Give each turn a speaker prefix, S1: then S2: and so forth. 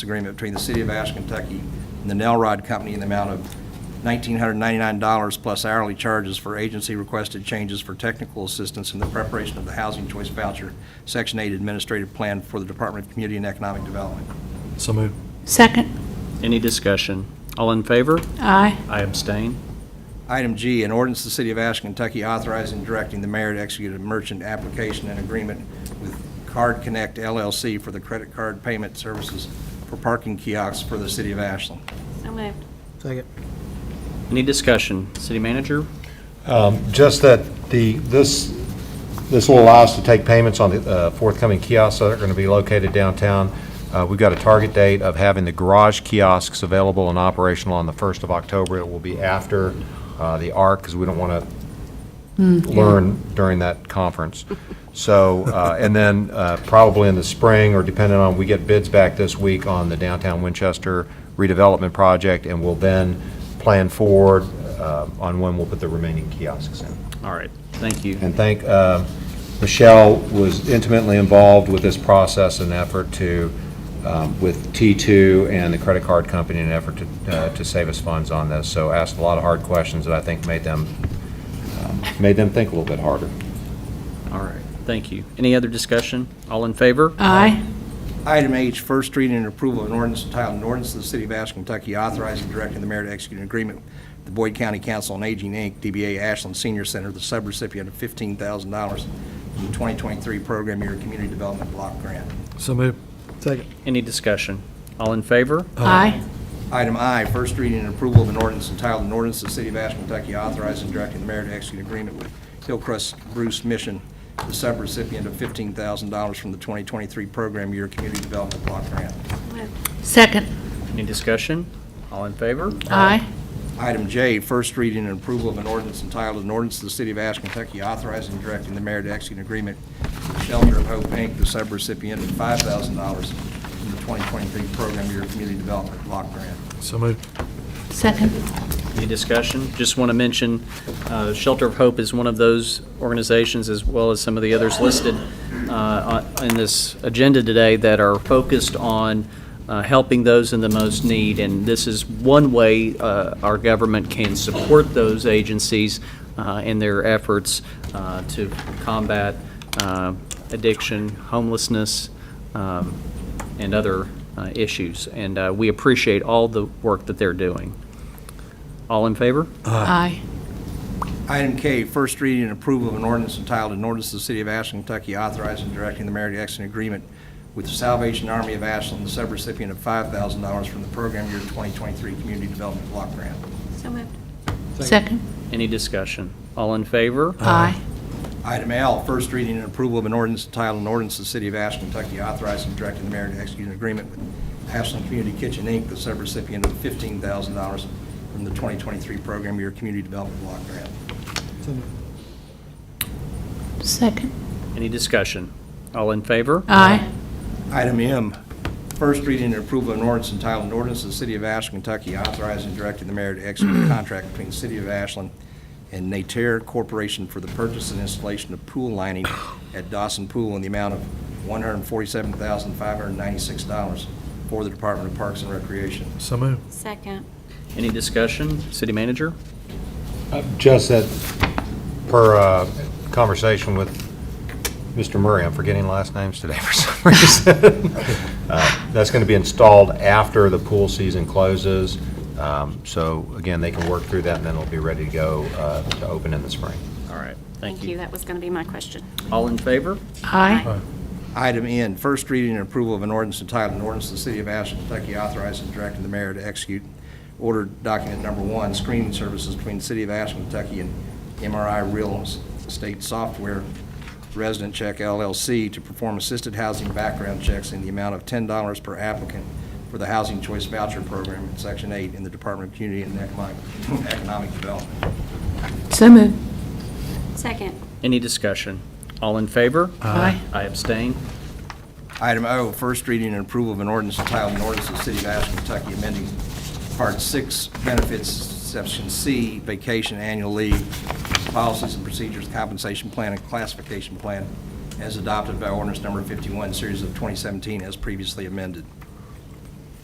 S1: agreement between the City of Ash, Kentucky and the Nelrod Company in the amount of $1,999 plus hourly charges for agency-requested changes for technical assistance in the preparation of the Housing Choice Voucher Section 8 Administrative Plan for the Department of Community and Economic Development.
S2: So moved.
S3: Second.
S4: Any discussion? All in favor?
S3: Aye.
S4: I abstain.
S1: Item G, an ordinance to the City of Ash, Kentucky authorizing and directing the mayor to execute a merchant application and agreement with Card Connect LLC for the credit card payment services for parking kiosks for the City of Ashland.
S3: So moved.
S5: Second.
S4: Any discussion? City manager?
S6: Just that the, this, this will allow us to take payments on the uh, forthcoming kiosks that are going to be located downtown. Uh, We've got a target date of having the garage kiosks available and operational on the 1st of October. It will be after uh, the ARC, because we don't want to learn during that conference. So, uh, and then uh, probably in the spring, or depending on, we get bids back this week on the downtown Winchester redevelopment project, and we'll then plan forward uh, on when we'll put the remaining kiosks in.
S4: All right, thank you.
S6: And thank, uh, Michelle was intimately involved with this process and effort to, um, with T2 and the credit card company in an effort to, uh, to save us funds on this. So asked a lot of hard questions that I think made them, um, made them think a little bit harder.
S4: All right, thank you. Any other discussion? All in favor?
S3: Aye.
S1: Item H, first reading and approval of an ordinance entitled, an ordinance of the City of Ash, Kentucky authorizing and directing the mayor to execute an agreement with the Boyd County Council on Aging, Inc., DBA Ashland Senior Center, the subrecipient of $15,000 from the 2023 Program Year Community Development Block Grant.
S2: So moved. Uh,
S5: Second.
S4: Any discussion? All in favor?
S3: Aye.
S1: Item I, first reading and approval of an ordinance entitled, an ordinance of the City of Ash, Kentucky authorizing and directing the mayor to execute an agreement with Hillcrest Bruce Mission, the subrecipient of $15,000 from the 2023 Program Year Community Development Block Grant.
S3: Second.
S4: Any discussion? All in favor?
S3: Aye.
S1: Item J, first reading and approval of an ordinance entitled, an ordinance to the City of Ash, Kentucky authorizing and directing the mayor to execute an agreement with Shelter of Hope, Inc., the subrecipient of $5,000 from the 2023 Program Year Community Development Block Grant.
S2: So moved.
S3: Second.
S4: Any discussion? Just want to mention, uh, Shelter of Hope is one of those organizations, as well as some of the others listed uh, on- in this agenda today, that are focused on uh, helping those in the most need. And this is one way uh, our government can support those agencies uh, in their efforts uh, to combat uh, addiction, homelessness, um, and other uh, issues. And uh, we appreciate all the work that they're doing. All in favor?
S3: Aye.
S1: Item K, first reading and approval of an ordinance entitled, an ordinance to the City of Ashland, Kentucky authorizing and directing the mayor to execute an agreement with the Salvation Army of Ashland, the subrecipient of $5,000 from the Program Year 2023 Community Development Block Grant.
S3: So moved. Second.
S4: Any discussion? All in favor?
S3: Aye.
S1: Item L, first reading and approval of an ordinance entitled, an ordinance to the City of Ashland, Kentucky authorizing and directing the mayor to execute an agreement with Ashland Community Kitchen, Inc., the subrecipient of $15,000 from the 2023 Program Year Community Development Block Grant.
S5: So moved.
S3: Second.
S4: Any discussion? All in favor?
S3: Aye.
S1: Item M, first reading and approval of an ordinance entitled, an ordinance of the City of Ashland, Kentucky authorizing and directing the mayor to execute a contract between the City of Ashland and Nater Corporation for the purchase and installation of pool lining at Dawson Pool in the amount of $147,596 for the Department of Parks and Recreation.
S2: So moved.
S3: Second.
S4: Any discussion? City manager?
S6: Just that, per uh, conversation with Mr. Murray, I'm forgetting last names today for some reason. Uh, That's going to be installed after the pool season closes. Um, So again, they can work through that, and then it'll be ready to go uh, to open in the spring.
S4: All right, thank
S7: Thank you,
S4: you.
S7: that was going to be my question.
S4: All in favor?
S3: Aye.
S1: Item N, first reading and approval of an ordinance entitled, an ordinance to the City of Ashland, Kentucky authorizing and directing the mayor to execute order document number one, screening services between the City of Ashland, Kentucky and MRI Real Estate Software Resident Check LLC to perform assisted housing background checks in the amount of $10 per applicant for the Housing Choice Voucher Program in Section 8 in the Department of Community and Economic Economic Development.
S3: So moved.
S7: Second.
S4: Any discussion? All in favor?
S3: Aye.
S4: I abstain.
S1: Item O, first reading and approval of an ordinance entitled, an ordinance of the City of Ashland, Kentucky, amending Part 6, Benefits, Section C, Vacation, Annual Leave, Policies and Procedures, Compensation Plan, and Classification Plan, as adopted by ordinance number 51, Series of 2017, as previously amended.